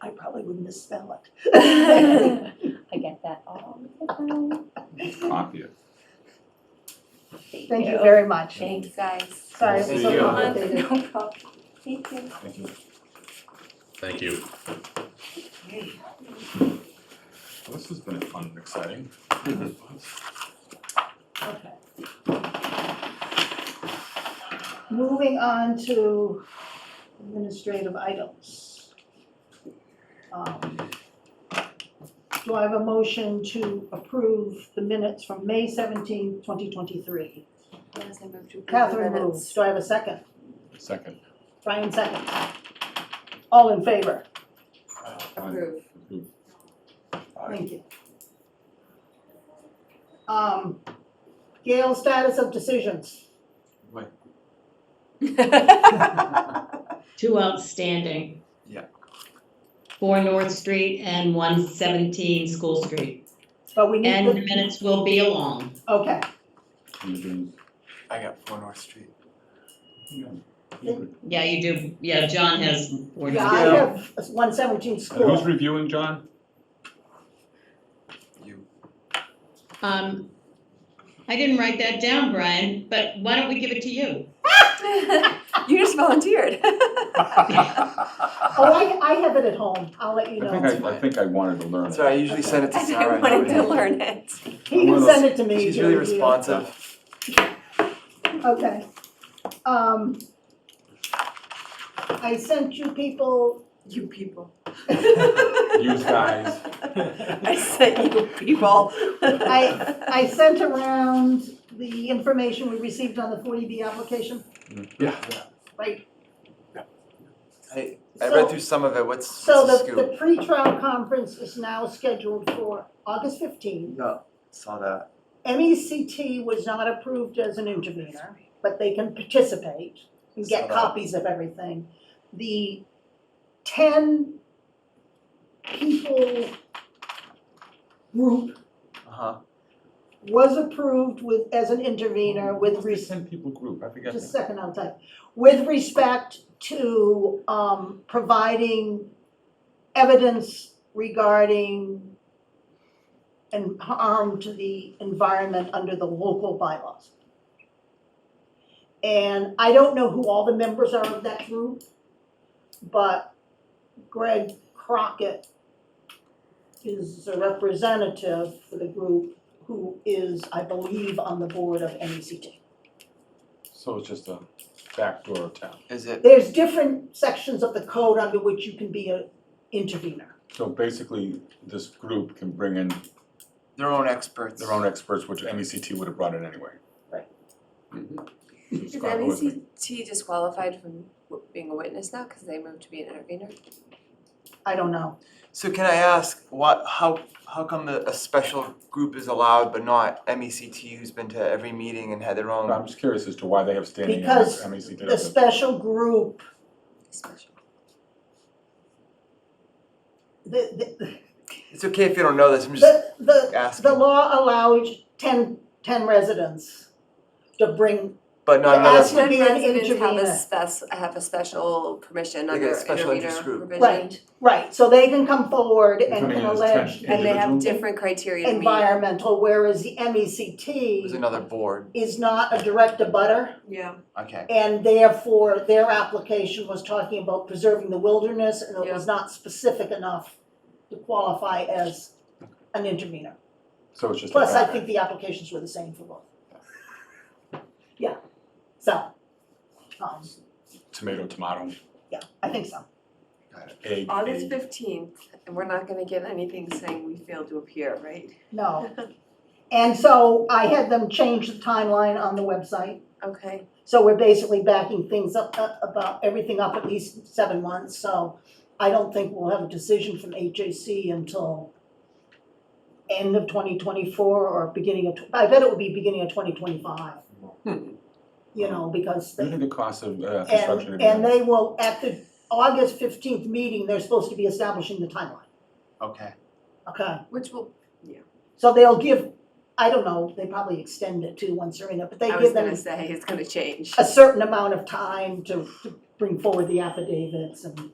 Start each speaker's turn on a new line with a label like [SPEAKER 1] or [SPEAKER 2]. [SPEAKER 1] I probably would misspell it.
[SPEAKER 2] I get that all the time.
[SPEAKER 3] Obvious.
[SPEAKER 1] Thank you very much.
[SPEAKER 2] Thanks, guys.
[SPEAKER 1] Sorry, it was
[SPEAKER 3] Thank
[SPEAKER 1] so
[SPEAKER 3] you.
[SPEAKER 1] complicated.
[SPEAKER 2] No problem. Thank you.
[SPEAKER 3] Thank you.
[SPEAKER 4] Thank you.
[SPEAKER 3] This has been fun and exciting.
[SPEAKER 1] Okay. Moving on to administrative items. Um, Do I have a motion to approve the minutes from May seventeenth, twenty twenty-three?
[SPEAKER 2] Yes, I moved to approve the
[SPEAKER 1] Catherine moves,
[SPEAKER 2] minutes.
[SPEAKER 1] do I have a second?
[SPEAKER 3] Second.
[SPEAKER 1] Brian seconds. All in favor?
[SPEAKER 2] Approve.
[SPEAKER 3] Approved.
[SPEAKER 1] Thank you. Um, Gail, status of decisions.
[SPEAKER 3] Wait,
[SPEAKER 5] Two outstanding.
[SPEAKER 3] Yeah.
[SPEAKER 5] Four North Street and one seventeen School Street.
[SPEAKER 1] But we
[SPEAKER 5] And the
[SPEAKER 1] need,
[SPEAKER 5] minutes will be along.
[SPEAKER 1] the- okay,
[SPEAKER 3] you're doing-
[SPEAKER 6] I got four North Street.
[SPEAKER 3] And
[SPEAKER 5] Yeah, you do, yeah, John has four.
[SPEAKER 1] yeah, I
[SPEAKER 5] notes.
[SPEAKER 1] have one
[SPEAKER 6] Uh,
[SPEAKER 1] seventeen
[SPEAKER 3] who's
[SPEAKER 1] school,
[SPEAKER 3] reviewing, John?
[SPEAKER 6] You,
[SPEAKER 5] Um, I didn't write that down, Brian, but why don't we give it to you?
[SPEAKER 2] You just volunteered.
[SPEAKER 1] oh, I, I have it at home, I'll let you
[SPEAKER 3] I
[SPEAKER 1] know.
[SPEAKER 3] think I, I think I wanted to learn
[SPEAKER 6] that's
[SPEAKER 3] it.
[SPEAKER 6] right, I usually send it to
[SPEAKER 2] I
[SPEAKER 6] Sarah.
[SPEAKER 2] didn't want to learn it.
[SPEAKER 1] He
[SPEAKER 6] I'm one
[SPEAKER 1] can
[SPEAKER 6] of
[SPEAKER 1] send it to me.
[SPEAKER 6] She's really
[SPEAKER 1] to review.
[SPEAKER 6] responsive.
[SPEAKER 1] Okay. Um, I sent you people,
[SPEAKER 2] You people.
[SPEAKER 3] You guys.
[SPEAKER 2] I said you people.
[SPEAKER 1] I, I sent around the information we received on the forty B application,
[SPEAKER 3] Yeah.
[SPEAKER 1] right?
[SPEAKER 6] I, I read
[SPEAKER 1] So,
[SPEAKER 6] through some of it, what's,
[SPEAKER 1] so
[SPEAKER 6] what's
[SPEAKER 1] the,
[SPEAKER 6] the scoop?
[SPEAKER 1] the pre-trial conference is now scheduled for August fifteenth.
[SPEAKER 6] No, saw that.
[SPEAKER 1] MECT was not approved as an intervener, but they can participate and
[SPEAKER 6] Saw
[SPEAKER 1] get
[SPEAKER 6] that.
[SPEAKER 1] copies of everything. The ten people group
[SPEAKER 6] Uh-huh,
[SPEAKER 1] was approved with, as an intervener with
[SPEAKER 3] Who's the
[SPEAKER 1] res-
[SPEAKER 3] Ten people group, I forget.
[SPEAKER 1] just a second, I'll type. With respect to, um, providing evidence regarding and harm to the environment under the local bylaws. And I don't know who all the members are of that group, but Greg Crockett is a representative for the group who is, I believe, on the board of E NECT.
[SPEAKER 3] So it's just a back door of town.
[SPEAKER 6] is it,
[SPEAKER 1] There's different sections of the code under which you can be an intervener.
[SPEAKER 3] So basically, this group can bring in
[SPEAKER 6] their own experts?
[SPEAKER 3] their own experts, which MECT would have brought in anyway. Mm-hmm.
[SPEAKER 1] Right.
[SPEAKER 3] So
[SPEAKER 2] Is
[SPEAKER 1] E
[SPEAKER 3] Scott was like,
[SPEAKER 2] MACT disqualified from w- being a witness now because they moved to be an intervener?
[SPEAKER 1] I don't know.
[SPEAKER 6] So can I ask, what, how, how come the, a special group is allowed but not MECT who's been to every meeting and had their own?
[SPEAKER 3] I'm just curious as to why they have standing in E
[SPEAKER 1] Because
[SPEAKER 3] MECT.
[SPEAKER 1] The special group,
[SPEAKER 2] Special.
[SPEAKER 1] the, the,
[SPEAKER 6] It's okay if you don't know this, I'm just
[SPEAKER 1] the, the, the
[SPEAKER 6] asking,
[SPEAKER 1] law allows ten, ten residents to bring,
[SPEAKER 6] but not
[SPEAKER 1] the
[SPEAKER 6] another.
[SPEAKER 1] ask- To be an
[SPEAKER 2] Residents have
[SPEAKER 1] intervener.
[SPEAKER 2] a spec, have a special permission
[SPEAKER 6] Like a
[SPEAKER 2] under
[SPEAKER 6] special
[SPEAKER 2] intervener
[SPEAKER 6] interest group.
[SPEAKER 2] provision.
[SPEAKER 1] right, right, so they can come forward and
[SPEAKER 3] Coming
[SPEAKER 1] can
[SPEAKER 3] in as 10
[SPEAKER 1] allege
[SPEAKER 2] And they have
[SPEAKER 3] Individual?
[SPEAKER 2] different criteria to meet.
[SPEAKER 1] environmental, whereas the
[SPEAKER 6] It was
[SPEAKER 1] MECT
[SPEAKER 6] another board,
[SPEAKER 1] is not a direct abutter.
[SPEAKER 2] Yeah.
[SPEAKER 6] okay.
[SPEAKER 1] And therefore, their application was talking about preserving the wilderness, and it was not specific enough to qualify as an intervener.
[SPEAKER 3] So it's just a
[SPEAKER 1] Plus, I
[SPEAKER 3] back-
[SPEAKER 1] think the applications were the same for both. Yeah, so, um,
[SPEAKER 3] tomato, tomato,
[SPEAKER 1] yeah, I think so.
[SPEAKER 3] egg,
[SPEAKER 2] August
[SPEAKER 3] egg.
[SPEAKER 2] fifteenth, and we're not gonna get anything saying we failed to appear, right?
[SPEAKER 1] No. And so I had them change the timeline on the website.
[SPEAKER 2] Okay,
[SPEAKER 1] So we're basically backing things up, uh, about everything up at least seven months, so I don't think we'll have a decision from HAC until end of twenty twenty-four or beginning of, tw- I bet it will be beginning of twenty twenty-five.
[SPEAKER 2] Hmm.
[SPEAKER 1] You know, because
[SPEAKER 3] Due to
[SPEAKER 1] they,
[SPEAKER 3] the cost of uh, construction.
[SPEAKER 1] and,
[SPEAKER 3] of
[SPEAKER 1] and they will, at the August fifteenth meeting, they're supposed to be establishing the timeline,
[SPEAKER 6] Okay.
[SPEAKER 1] okay?
[SPEAKER 2] which will,
[SPEAKER 1] So they'll give, I don't know, they probably extend it too once they're in it, but they
[SPEAKER 2] I was
[SPEAKER 1] give them
[SPEAKER 2] gonna say, it's gonna change.
[SPEAKER 1] a certain amount of time to, to bring forward the affidavits and